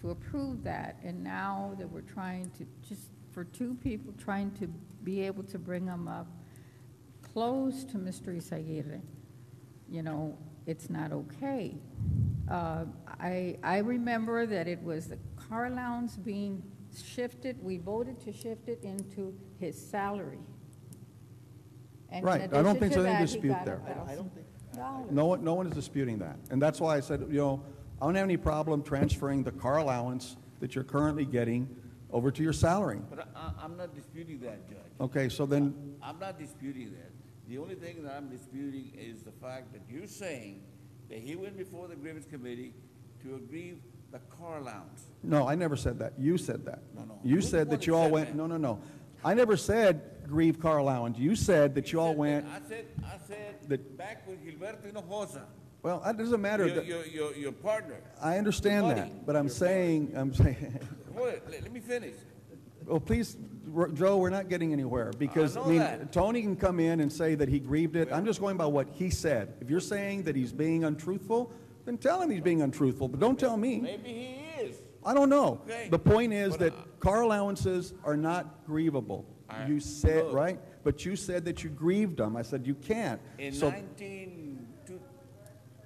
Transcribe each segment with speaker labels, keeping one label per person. Speaker 1: to approve that, and now that we're trying to, just for two people, trying to be able to bring them up close to Mr. Isaguirre, you know, it's not okay. Uh, I, I remember that it was the car allowance being shifted, we voted to shift it into his salary. And in
Speaker 2: Right. I don't
Speaker 1: addition
Speaker 2: think
Speaker 1: to
Speaker 2: there's any
Speaker 1: that, he
Speaker 2: dispute
Speaker 1: got
Speaker 2: there.
Speaker 1: $1,000.
Speaker 2: I- I No one, no one is disputing that. And that's why I said, you know, I don't have any problem transferring the car allowance that you're currently getting over to your salary.
Speaker 3: But I, I- I'm not disputing that, Judge.
Speaker 2: Okay, so then,
Speaker 3: I'm not disputing that. The only thing that I'm disputing is the fact that you're saying that he went before the grievance committee to agree the car allowance.
Speaker 2: no, I never said that. You said that.
Speaker 3: No, no. You're
Speaker 2: You
Speaker 3: the
Speaker 2: said
Speaker 3: one
Speaker 2: that
Speaker 3: that
Speaker 2: you all
Speaker 3: said
Speaker 2: went,
Speaker 3: that.
Speaker 2: no, no, no. I never said grieve car allowance. You said that you all went,
Speaker 3: I said, I said,
Speaker 2: That-
Speaker 3: back with Gilberto Hinojosa,
Speaker 2: well, it doesn't matter.
Speaker 3: your,
Speaker 2: that-
Speaker 3: your, your, your partner.
Speaker 2: I understand
Speaker 3: Your
Speaker 2: that,
Speaker 3: buddy.
Speaker 2: but I'm saying, I'm saying,
Speaker 3: Wait, let, let me finish.
Speaker 2: Well, Oh, please, R- Joe, we're not getting anywhere, because,
Speaker 3: know
Speaker 2: I mean,
Speaker 3: that.
Speaker 2: Tony can come in and say that he grieved it. I'm just going by what he said. If you're saying that he's being untruthful, then tell him he's being untruthful, but don't tell me.
Speaker 3: Maybe he is.
Speaker 2: I don't know.
Speaker 3: Okay.
Speaker 2: The point is
Speaker 3: But,
Speaker 2: that car allowances are not grievable. You said,
Speaker 3: Look.
Speaker 2: right? But you said that you grieved them. I said you can't.
Speaker 3: In
Speaker 2: So,
Speaker 3: nineteen, two,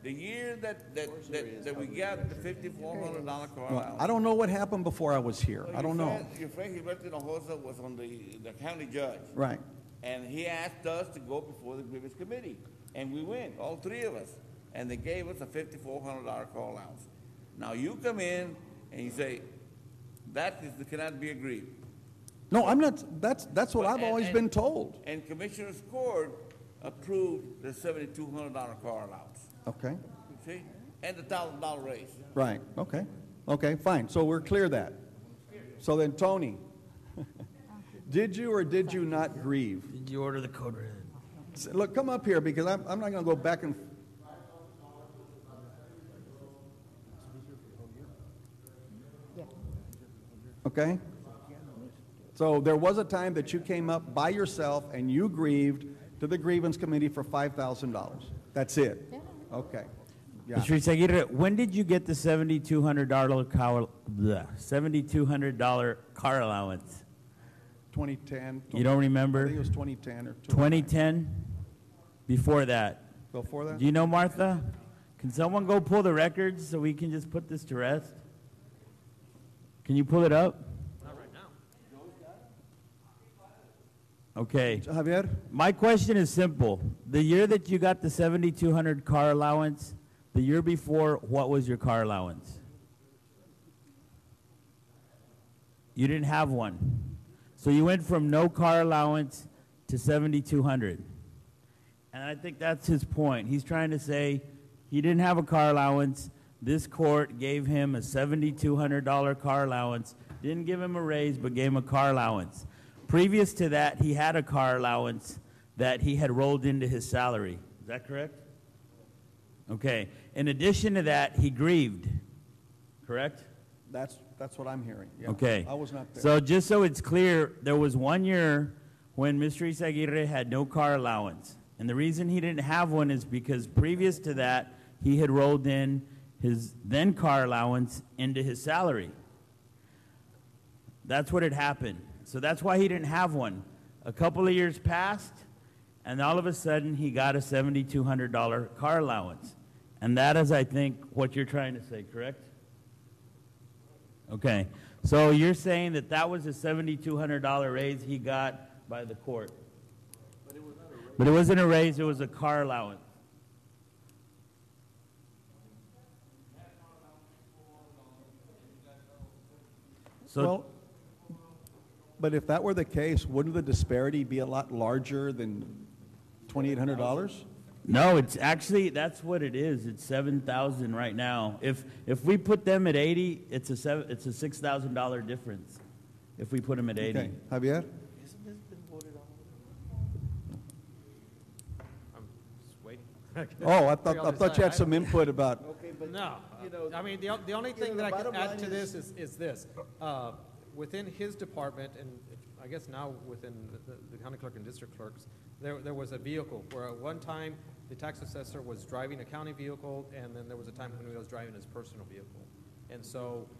Speaker 3: the year that, that, that, that we got the fifty-four hundred dollar car
Speaker 2: well,
Speaker 3: allowance.
Speaker 2: I don't know what happened before I was here.
Speaker 3: Well,
Speaker 2: I
Speaker 3: your
Speaker 2: don't know.
Speaker 3: friend- Your friend Gilberto Hinojosa was on the, the county judge,
Speaker 2: Right.
Speaker 3: and he asked us to go before the grievance committee, and we went, all three of us, and they gave us a fifty-four hundred dollar call allowance. Now you come in and you say, that is, cannot be agreed.
Speaker 2: No, I'm not, that's, that's what
Speaker 3: Well,
Speaker 2: I've
Speaker 3: and-
Speaker 2: always
Speaker 3: and-
Speaker 2: been told.
Speaker 3: And Commissioner's Court approved the seventy-two hundred dollar car allowance,
Speaker 2: Okay?
Speaker 3: you see, and the thousand dollar raise.
Speaker 2: Right, okay, okay, fine, so we're clear that. So then, Tony, did you or did you not grieve?
Speaker 4: Did you order the code red?
Speaker 2: S- Look, come up here, because I'm, I'm not gonna go back and, okay? So there was a time that you came up by yourself and you grieved to the grievance committee for five thousand dollars. That's it? Okay, yeah.
Speaker 5: Mr. Izaguirre, when did you get the seventy-two hundred dollar car, seventy-two hundred dollar car allowance?
Speaker 2: 2010.
Speaker 5: You don't remember?
Speaker 2: I think it was 2010 or 2009.
Speaker 5: Twenty-ten? Before that?
Speaker 2: Before that?
Speaker 5: Do you know, Martha? Can someone go pull the records so we can just put this to rest? Can you pull it up? Not right now. Okay.
Speaker 2: Javier,
Speaker 5: My question is simple. The year that you got the seventy-two hundred car allowance, the year before, what was your car allowance? You didn't have one. So you went from no car allowance to seventy-two hundred. And I think that's his point. He's trying to say he didn't have a car allowance. This court gave him a $7,200 car allowance, didn't give him a raise, but gave him a car allowance. Previous to that, he had a car allowance that he had rolled into his salary. Is that correct? Okay. In addition to that, he grieved, correct?
Speaker 2: that's, that's what I'm hearing. yeah.
Speaker 5: Okay.
Speaker 2: I was not there.
Speaker 5: So just so it's clear, there was one year when Mr. Isaguirre had no car allowance. And the reason he didn't have one is because previous to that, he had rolled in his then car allowance into his salary. That's what had happened. So that's why he didn't have one. A couple of years passed, and all of a sudden, he got a $7,200 car allowance. And that is, I think, what you're trying to say, correct? Okay, so you're saying that that was a seventy-two hundred dollar raise he got by the court? But it wasn't a raise, it was a car allowance. So,
Speaker 2: Well, but if that were the case, wouldn't the disparity be a lot larger than $2,800?
Speaker 5: no, it's actually, that's what it is, it's seven thousand right now. If, if we put them at eighty, it's a seven, it's a six thousand dollar difference, if we put them at eighty.
Speaker 2: Okay, Javier?
Speaker 6: I'm just waiting.
Speaker 2: Oh, I thought,
Speaker 6: Three
Speaker 2: I
Speaker 6: other
Speaker 2: thought you had
Speaker 6: side.
Speaker 2: some input about,
Speaker 6: No, I mean, the, o- the only thing that I can add to this is, is this. Uh, Within his department, and I guess now within the- the the county clerk and district clerks, there, there was a vehicle where at one time, the tax assessor was driving a county vehicle, and then there was a time when he was driving his personal vehicle. And so